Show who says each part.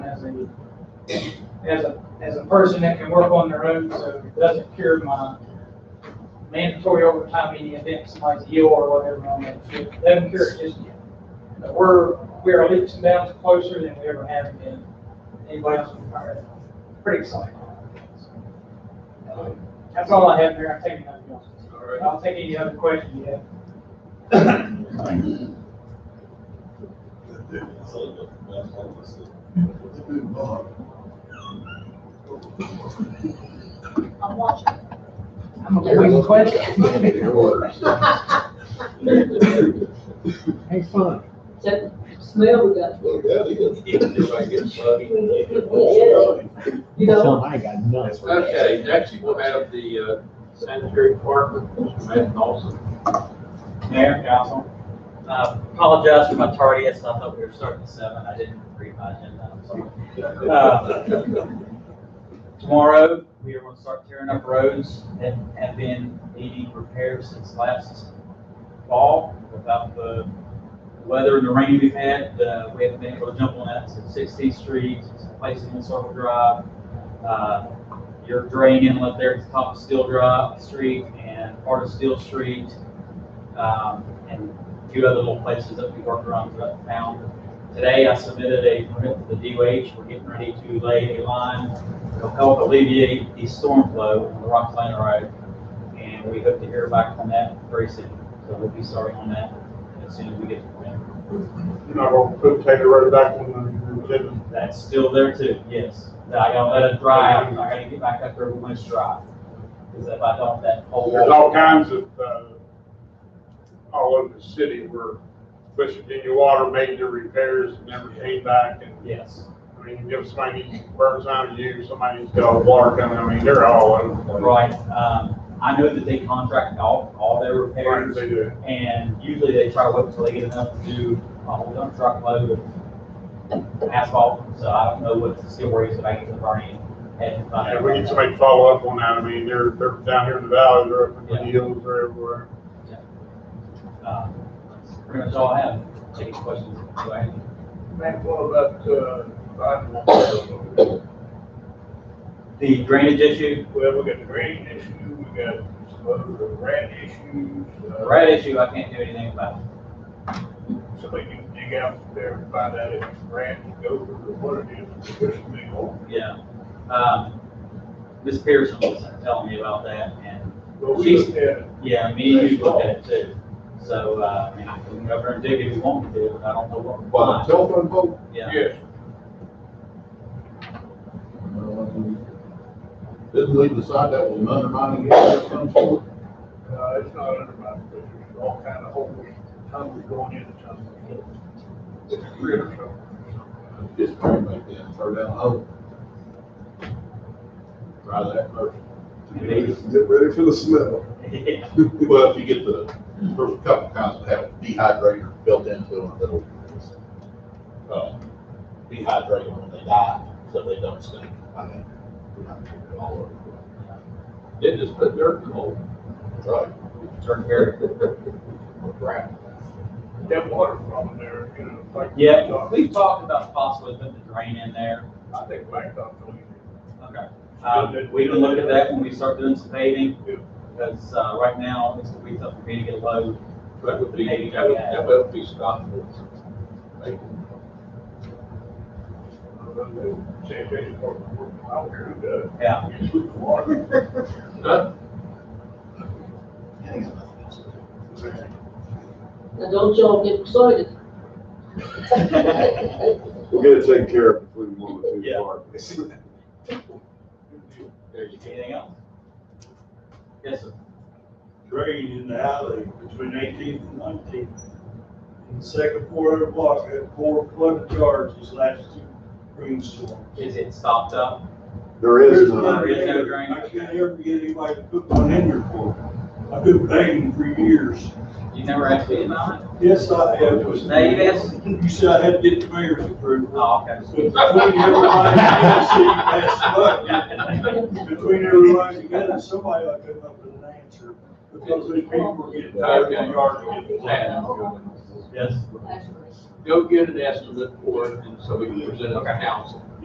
Speaker 1: as a, as a person that can work on their own, so it doesn't cure my mandatory overtime in the event somebody's ill or whatever on that shift. Doesn't cure it just yet. But we're, we are leaps and bounds closer than we ever have been. Anybody else from fire? Pretty exciting. That's all I have there. I'll take another one.
Speaker 2: All right.
Speaker 1: I'll take any other questions you have.
Speaker 3: I'm watching.
Speaker 1: I'm a quick question.
Speaker 4: Hey, fun.
Speaker 3: That smell we got, you know,
Speaker 4: Something I got nuts.
Speaker 2: Okay, next we'll have the uh, sanitary department, Mr. Matt Dawson.
Speaker 1: Mayor, council.
Speaker 5: Uh, Apologize for my tardiness, I thought we were starting at seven, I didn't read my agenda, I'm sorry. Uh, Tomorrow, we are going to start tearing up roads that have been needing repairs since last fall. Without the weather and the rain we've had, uh, we haven't been able to jump on that, so Sixteenth Street, place in Circle Drive, uh, your drain inlet there at the top of Steel Drive Street and part of Steel Street, um, and a few other little places that we work around throughout town. Today, I submitted a permit to the DOH, we're getting ready to lay a line It'll help alleviate the storm flow on the Rock Lane Road, and we hope to hear back on that very soon. So we'll be starting on that as soon as we get the plan.
Speaker 6: You're not gonna put Taylor Road back on the agenda?
Speaker 5: That's still there too, yes. I gotta let it dry out, I gotta get back up there when it's dry. Because if I don't, that whole.
Speaker 6: There's all kinds of, uh, all over the city where West Virginia Water made their repairs and never came back. And,
Speaker 5: Yes.
Speaker 6: I mean, you give somebody needs burns on you, somebody needs to got water coming, I mean, they're all over. the place.
Speaker 5: Right, um, I know that they contract all, all their
Speaker 6: Right,
Speaker 5: repairs.
Speaker 6: they do.
Speaker 5: And usually they try to wait until they get enough to do a whole dump truck load of asphalt, so I don't know what the steel worries that I get to Bernie and.
Speaker 6: And we need somebody to follow up on that. I mean, they're, they're down here in the valley, they're up in the hills, they're everywhere.
Speaker 5: Uh, that's Pretty much all I have, any questions? Do I have any?
Speaker 2: Matt, what about, uh, sidewalks?
Speaker 5: The drainage issue,
Speaker 2: Well, we got the rain issue, we got some other rat issues. uh,
Speaker 5: the rat issue, I can't do anything about.
Speaker 2: Somebody can dig out there and find out if it's rat, goat, or what it is, there's a big hole.
Speaker 5: Yeah. Um, Ms. Pearson was telling me about that and,
Speaker 2: Well, we looked at it.
Speaker 5: yeah, me and you looked at it too. So, uh, I mean, I can go over and dig if you want me to, but I don't know what. we're
Speaker 7: By the
Speaker 5: finding.
Speaker 7: telephone pole?
Speaker 5: Yeah.
Speaker 2: Yes,
Speaker 7: Didn't we decide that was undermining it of some sort?
Speaker 2: uh, it's not under my, there's all kind of holes, tunnels going in, tunnels. Three or so.
Speaker 7: Just turn back then, throw down the hole. Try that first.
Speaker 8: Get ready for the smell.
Speaker 5: Yeah.
Speaker 7: Well, if you get the, there's a couple kinds that have a dehydrator built into them that'll, uh, dehydrate them when they die, so they don't stink. I mean, we're not gonna do it all over.
Speaker 2: They just put dirt in the hole.
Speaker 7: Right.
Speaker 5: Turn here.
Speaker 7: Or ground.
Speaker 2: That water problem there, you know, like.
Speaker 5: Yeah, we talked about possibly putting the drain in there.
Speaker 2: I think Blacktop, don't even.
Speaker 5: Okay. Um, we can look at that when we start doing some paving, because, uh, right now, it's, we tough for me to get low.
Speaker 2: That would be,
Speaker 5: Maybe
Speaker 2: that would,
Speaker 5: add-
Speaker 2: that would be stopped. Like, Sanitation department, I don't care who does.
Speaker 5: Yeah,
Speaker 2: You sweep the water. Huh?
Speaker 3: now don't y'all get excited.
Speaker 8: We're gonna take care of it before we move it too
Speaker 5: Yeah.
Speaker 8: far.
Speaker 5: there's anything else? Yes, sir.
Speaker 9: drain in the alley between eighteenth and nineteenth. In the second quarter of the block, had four flood charges last two rainstorms.
Speaker 5: Is it stopped up?
Speaker 8: There is
Speaker 5: none.
Speaker 8: none.
Speaker 9: I can't ever get anybody to put one in there for me. I've been paying for years.
Speaker 5: You never asked me about it?
Speaker 9: Yes, I have.
Speaker 5: Now you've asked?
Speaker 9: You said I had to get the mayor's approval.
Speaker 5: Oh, okay.
Speaker 9: But Between everybody, I see that's what. Between everybody together, somebody ought to come up with an answer. Because these people are getting tired of the yard.
Speaker 5: Yes.
Speaker 2: Go get an estimate for it, and so we can present it to council.